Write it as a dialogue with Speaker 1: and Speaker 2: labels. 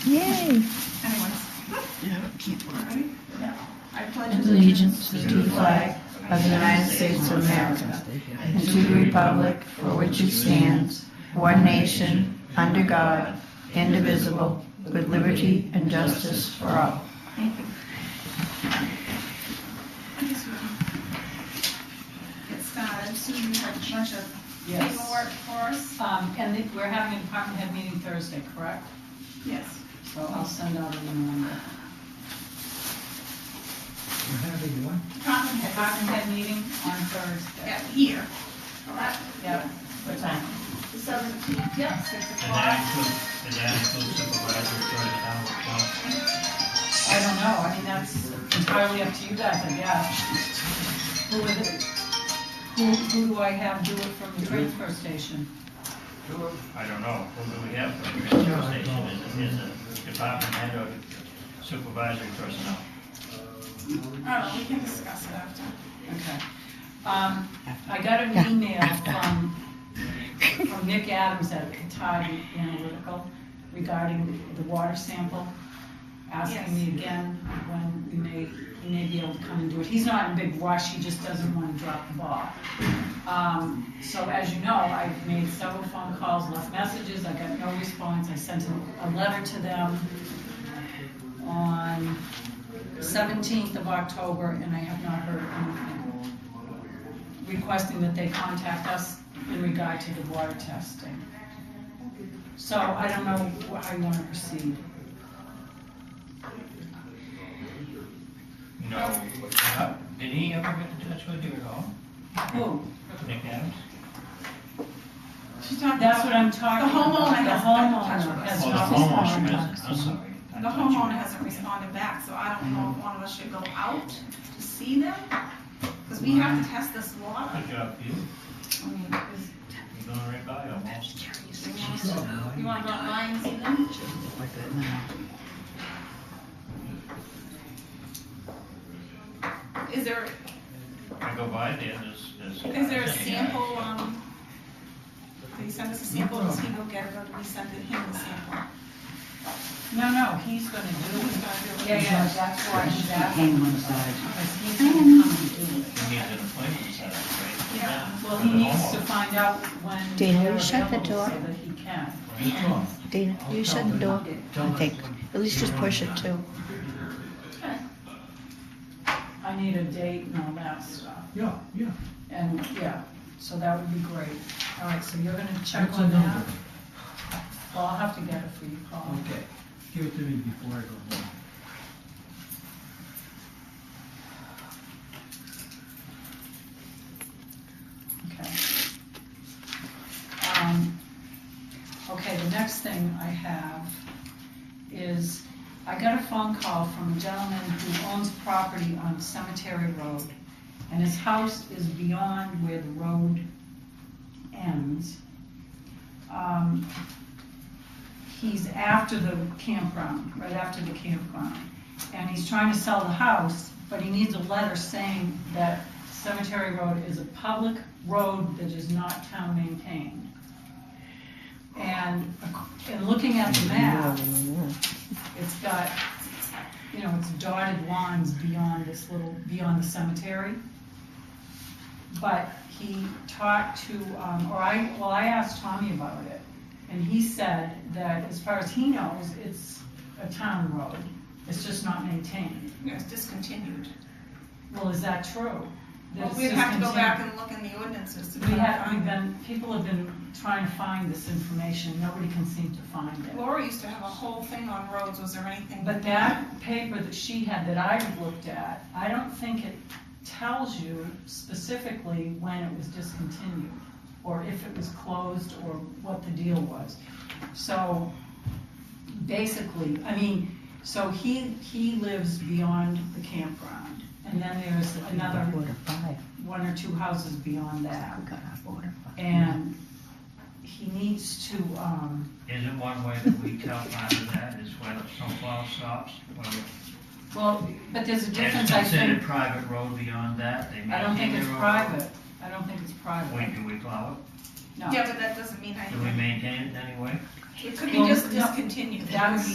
Speaker 1: Okay.
Speaker 2: Anyways,
Speaker 1: Yeah, keep
Speaker 2: all
Speaker 1: on.
Speaker 2: right. I pledge
Speaker 3: allegiance to the flag of the United States of America and to the republic for which it stands, one nation, under God, indivisible, with liberty and justice for all.
Speaker 2: Thank you. I guess we can Get started. Susan, you have a bunch of
Speaker 4: Yes.
Speaker 2: paperwork for us?
Speaker 4: Um, and it- we're having a department head meeting Thursday, correct?
Speaker 2: Yes.
Speaker 4: So I'll send out an email.
Speaker 5: We're having one.
Speaker 2: Department heads.
Speaker 4: Department head meeting on Thursday.
Speaker 2: Yeah, here. Correct?
Speaker 4: Yep. What time?
Speaker 2: The seventeenth, yeah, six
Speaker 6: And that
Speaker 2: o'clock.
Speaker 6: includes, and that includes supervisor starting at nine o'clock.
Speaker 4: I don't know, I mean, that's entirely up to you guys, I guess. Who is it? Who, who do I have do it from the transfer station?
Speaker 6: I don't know, who do we have for the transfer station, is it, is it department head or supervisory personnel?
Speaker 2: Oh, we can discuss it after.
Speaker 4: Okay. Um, I got an email from, from Nick Adams at Katati Analytical regarding the water sample, asking me again when we may, he may be able to come and do it. He's not in a big rush, he just doesn't want to drop the ball. Um, so as you know, I've made several phone calls, left messages, I got no response, I sent a, a letter to them on seventeenth of October, and I have not heard anything. Requesting that they contact us in regard to the water testing. So I don't know wh- how you wanna proceed.
Speaker 6: No, Uh, did he ever get in touch with you at all,
Speaker 4: Who?
Speaker 6: Nick Adams?
Speaker 2: She talked
Speaker 4: That's what
Speaker 2: about,
Speaker 4: I'm talking
Speaker 2: The homeowner
Speaker 4: about.
Speaker 2: has-
Speaker 4: The homeowner has
Speaker 6: Oh, the
Speaker 4: not
Speaker 6: homeowner
Speaker 4: responded.
Speaker 6: hasn't, I'm sorry. I
Speaker 2: the
Speaker 6: thought you-
Speaker 2: homeowner hasn't responded back, so I don't know if one of us should go out to see them? Because we have to test this water.
Speaker 6: Good job, you,
Speaker 2: I mean, is-
Speaker 6: you're going right by almost.
Speaker 2: You wanna go out by and see them? Is there,
Speaker 6: I go by there, there's, there's.
Speaker 2: is there a sample, um, do you send us a sample, does he go get it, or do we send it him a sample?
Speaker 4: No, no, he's gonna do
Speaker 2: Who's
Speaker 4: it.
Speaker 2: gonna do it?
Speaker 4: Yeah, yeah, that's why she's asking. Because he's gonna come and do it.
Speaker 6: He needs an appointment set up, right?
Speaker 2: Yeah.
Speaker 4: Well,
Speaker 6: For the
Speaker 4: he needs to
Speaker 6: homeowner.
Speaker 4: find out when
Speaker 3: Dana,
Speaker 4: they're
Speaker 3: you shut the
Speaker 4: available so
Speaker 3: door.
Speaker 4: that he can.
Speaker 3: Dana, you shut the door, I think. At least just push it too.
Speaker 4: I need a date and all that stuff.
Speaker 5: Yeah, yeah.
Speaker 4: And, yeah, so that would be great. All right, so you're gonna check
Speaker 5: What's the
Speaker 4: on that?
Speaker 5: number?
Speaker 4: Well, I'll have to get it for you, Paul.
Speaker 5: Okay, give it to me before I go home.
Speaker 4: Okay. Um, Okay, the next thing I have is, I got a phone call from a gentleman who owns property on Cemetery Road, and his house is beyond where the road ends. Um, He's after the campground, right after the campground, and he's trying to sell the house, but he needs a letter saying that Cemetery Road is a public road that is not town maintained. And, ac- and looking at the map, it's got, you know, it's dotted lines beyond this little, beyond the cemetery. But he talked to, um, or I, well, I asked Tommy about it, and he said that as far as he knows, it's a town road. It's just not maintained.
Speaker 2: No, It's discontinued.
Speaker 4: Well, is that true? That
Speaker 2: Well,
Speaker 4: it's
Speaker 2: we'd have to go
Speaker 4: discontinued?
Speaker 2: back and look in the ordinances to
Speaker 4: We have,
Speaker 2: find
Speaker 4: we've
Speaker 2: them.
Speaker 4: been, people have been trying to find this information, nobody can seem to find it.
Speaker 2: Laura used to have a whole thing on roads, was there anything?
Speaker 4: But that paper that she had that I looked at, I don't think it tells you specifically when it was discontinued, or if it was closed, or what the deal was. So, basically, I mean, so he, he lives beyond the campground, and then there's another
Speaker 3: Order five.
Speaker 4: one or two houses beyond that.
Speaker 3: We got our order five.
Speaker 4: And he needs to, um,
Speaker 6: Is it one way that we tell Martha that is when a snowplow stops, when we
Speaker 4: well, but there's a
Speaker 6: It's
Speaker 4: difference, I
Speaker 6: considered
Speaker 4: think.
Speaker 6: private road beyond that, they maintain
Speaker 4: I don't think it's
Speaker 6: their own-
Speaker 4: private. I don't think it's
Speaker 6: Wait,
Speaker 4: private.
Speaker 6: do we plow
Speaker 4: No.
Speaker 2: Yeah, but that doesn't mean
Speaker 6: it? Do we
Speaker 2: anything.
Speaker 6: maintain it in any way?
Speaker 2: It could be
Speaker 4: Well,
Speaker 2: just
Speaker 4: no,
Speaker 2: discontinued.
Speaker 4: that would be